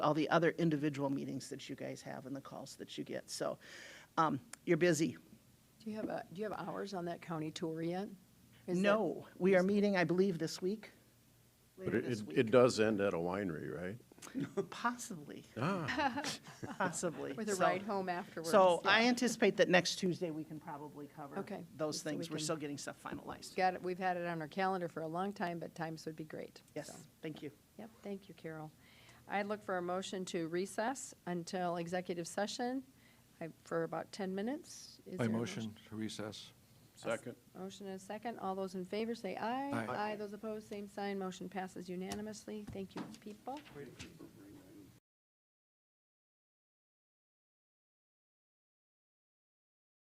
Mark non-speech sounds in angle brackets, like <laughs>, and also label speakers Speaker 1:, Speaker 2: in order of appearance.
Speaker 1: all the other individual meetings that you guys have and the calls that you get. So um, you're busy.
Speaker 2: Do you have, a- do you have hours on that county tour yet? Is that-
Speaker 1: No, we are meeting, I believe, this week.
Speaker 3: But
Speaker 1: Later
Speaker 3: it,
Speaker 1: this
Speaker 3: it- it
Speaker 1: week.
Speaker 3: does end at a winery, right?
Speaker 1: Possibly,
Speaker 3: <laughs> Ah,
Speaker 1: <laughs> possibly.
Speaker 2: With a
Speaker 1: So-
Speaker 2: ride home afterwards?
Speaker 1: So
Speaker 2: yeah.
Speaker 1: I anticipate that next Tuesday, we can probably cover
Speaker 2: Okay,
Speaker 1: those
Speaker 2: just so
Speaker 1: things.
Speaker 2: we
Speaker 1: We're
Speaker 2: can-
Speaker 1: still getting stuff finalized.
Speaker 2: Got it, we've had it on our calendar for a long time, but times would be great.
Speaker 1: Yes,
Speaker 2: so.
Speaker 1: thank you.
Speaker 2: Yep, thank you, Carol. I'd look for a motion to recess until executive session I- for about 10 minutes. Is
Speaker 4: My
Speaker 2: there a
Speaker 4: motion to recess.
Speaker 3: second.
Speaker 2: Motion and a second. All those in favor, say aye.
Speaker 4: Aye.
Speaker 2: Those opposed, same sign. Motion passes unanimously. Thank you, people.